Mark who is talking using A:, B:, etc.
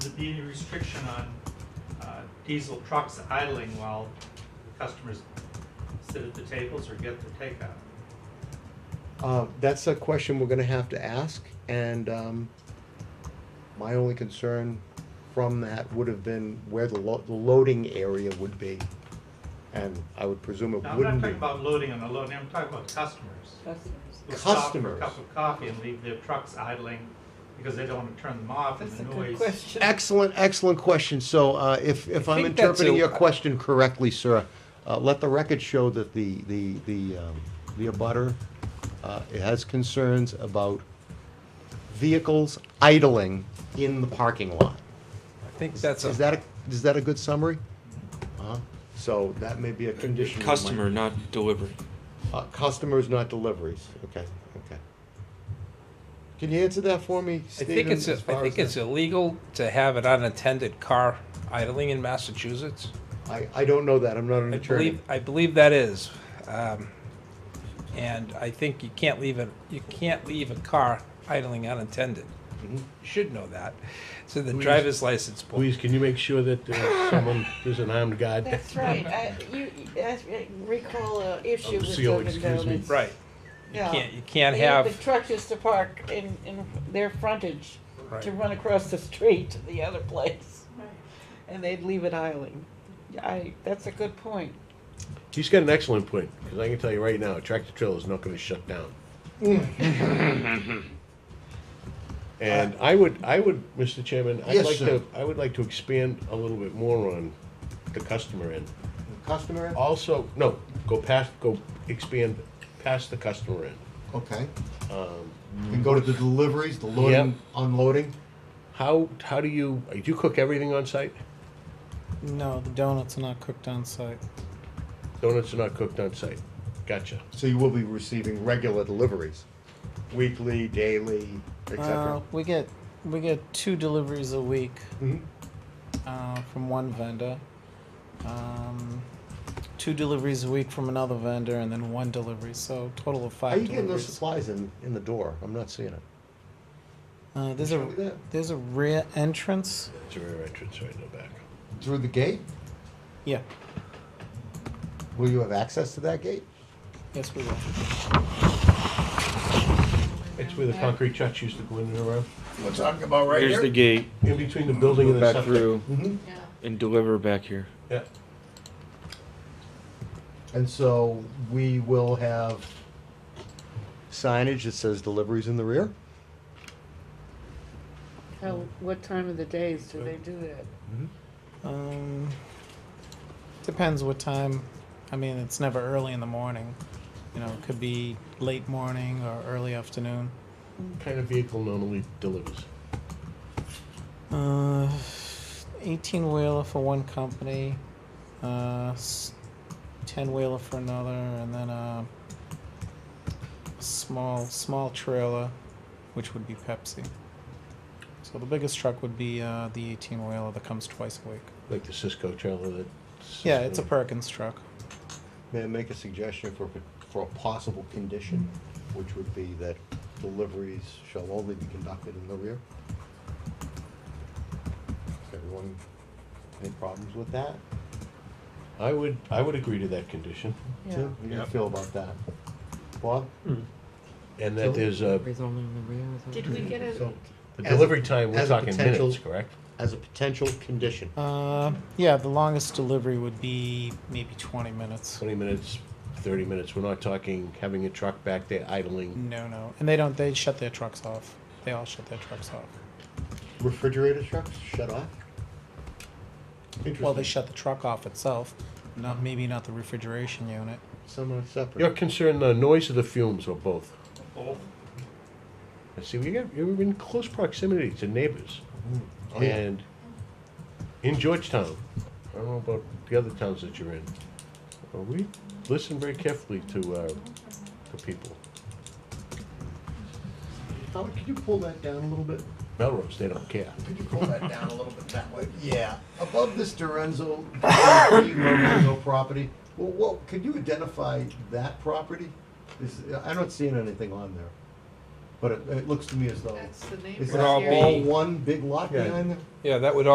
A: be any restriction on uh, diesel trucks idling while customers sit at the tables or get their takeout?
B: Uh, that's a question we're gonna have to ask, and, um, my only concern from that would have been where the lo- the loading area would be. And I would presume it
A: Now, I'm not
B: wouldn't be.
A: talking about loading and unloading, I'm talking about customers. who stop for a
B: Customers.
A: cup of coffee and leave their trucks idling because they don't want to turn them off and
C: That's a
A: the
C: good
A: noise.
C: question.
B: Excellent, excellent question, so, uh, if, if
C: I
B: I'm
C: think that's
B: interpreting
C: a-
B: your question correctly, sir, uh, let the record show that the, the, the, um, the abutter, uh, has concerns about vehicles idling in the parking lot.
D: I think that's
B: Is
D: a
B: that, a- is that a good summary? Uh-huh. So that may be a condition. we might-
E: Customer, not delivery.
B: Uh, Customers, not deliveries. Okay, okay. Can you answer that for me,
D: I
B: Stephen?
D: think it's a,
B: as
D: I
B: far
D: think
B: as
D: it's illegal to have an unattended car idling in Massachusetts.
B: the- I, I don't know that. I'm not an
D: I
B: attorney.
D: believe, I believe that is. Um, And I think you can't leave it, you can't leave a car idling unattended. You
B: Mm-hmm.
D: should know that. So the
F: Please-
D: driver's license book.
F: Please, can you make sure that there's someone, there's an armed guard?
C: That's right. I, you, I recall an issue
F: Oh,
C: with
F: CO,
C: Dunkin'
F: excuse me.
C: Donuts.
D: Right. You
C: Yeah.
D: can't, you can't
C: They had The
D: have,
C: truck used to park in, in their frontage
D: Right.
C: to run across the street to the other place. And they'd leave it idling. I, that's a good point.
F: He's got an excellent point, because I can tell you right now, tractor trailer is not gonna shut down. And I would, I would, Mr. Chairman, I'd
B: Yes,
F: like
B: sir.
F: to, I would like to expand a little bit more on the customer end.
B: Customer? end?
F: Also, no, go past, go expand past the customer end.
B: Uh, Okay. Um, And go to the deliveries, the loading,
F: Yep.
B: unloading?
F: How, how do you, do you cook everything on site?
G: No, the donuts are not cooked on site.
F: Donuts are not cooked on site. Gotcha.
B: So you will be receiving regular deliveries, weekly, daily, et
G: Uh,
B: cetera?
G: we get we get two deliveries a week
B: Mhm.
G: uh, from one vendor, um, two deliveries a week from another vendor, and then one delivery. So total of
B: How
G: five.
B: are you getting those
G: deliveries.
B: supplies in, in the door? I'm not seeing it.
G: Uh, there's
B: Show me
G: a
B: that.
G: there's a rear entrance.
F: It's a rear entrance right in the back.
B: Through the gate?
G: Yeah.
B: Will you have access to that gate?
G: Yes, we will.
F: It's where the concrete trucks used to go in and around.
H: We're talking
B: Oh,
H: about right
E: Here's the
H: here?
E: gate,
F: In between the building
E: go
F: and the
E: back
F: septic.
E: through
B: Mm-hmm.
E: and deliver back here.
F: Yeah.
B: And so we will have signage that says deliveries in the rear?
C: How, what time of the days do they do that?
G: Um, depends what time. I mean, it's never early in the morning. You know, it could be late morning or early afternoon.
F: What kind of vehicle normally delivers?
G: Uh, 18 wheeler for one company, uh, 10 wheeler for another, and then a small small trailer, which would be Pepsi. So the biggest truck would be uh, the 18 wheeler that comes twice a week.
F: Like the Cisco trailer that.
G: Yeah, it's a Perkins truck.
B: May I make a suggestion for, for a possible condition, which would be that deliveries shall only be conducted in the rear? Does everyone, any problems with that?
F: I would, I would agree to that condition.
C: Yeah.
B: Tim, how do you feel about that? Bob?
F: And that
B: So-
F: there's a,
C: Did we get a,
B: So,
F: the
B: As a-
F: delivery time, we're
B: as a
F: talking
B: potential-
F: minutes, correct?
B: as a potential condition.
G: Uh, yeah, the longest delivery would be maybe 20 minutes.
F: Twenty minutes, thirty minutes. We're not talking having a truck back there idling.
G: No, no, and they don't. They shut their trucks off. They all shut their trucks off.
B: Refrigerator trucks shut off?
G: Well, they
B: Interesting.
G: shut the truck off itself, not maybe not the refrigeration unit.
B: Some are separate.
F: You're concerned the noise of the fumes or both?
A: Both.
F: And see, we got, you're in close proximity to neighbors.
B: Oh, yeah.
F: And in Georgetown, I don't know about the other towns that you're in, but we listen very carefully to, uh, to people.
B: Tom, could you pull that down a little bit?
F: Melrose, they don't care.
B: Could you pull that down a little bit that way? Yeah. Above this Dorenzo, Lorenzo property, well, what, could you identify that property? Is, I don't see anything on there, but it, it looks to me as though.
C: that's the name
B: Is
D: Would
B: that
D: all
C: of
D: be-
C: the
B: all one big lot
F: Yeah.
B: behind there?
D: yeah, that would